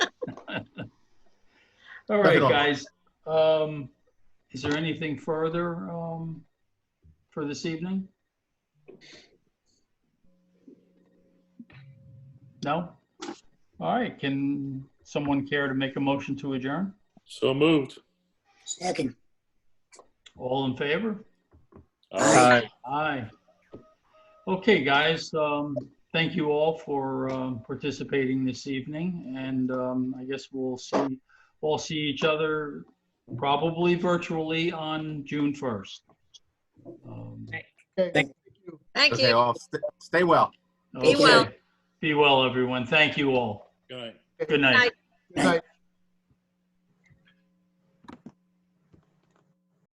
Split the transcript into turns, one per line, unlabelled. All right,
Nothing on.
guys. Um, is there anything further, um, for this evening? No? All right, can someone care to make a motion to adjourn?
So moved.
Second.
All in favor?
Aye.
Aye. Okay, guys, um, thank you all for, um, participating this evening, and, um, I guess we'll see, we'll see each other probably virtually on June first. Um,
Thank
Okay,
you.
all st- stay well.
Be well.
Be well, everyone. Thank you all.
Good night.
Good night.
Night.
Good night.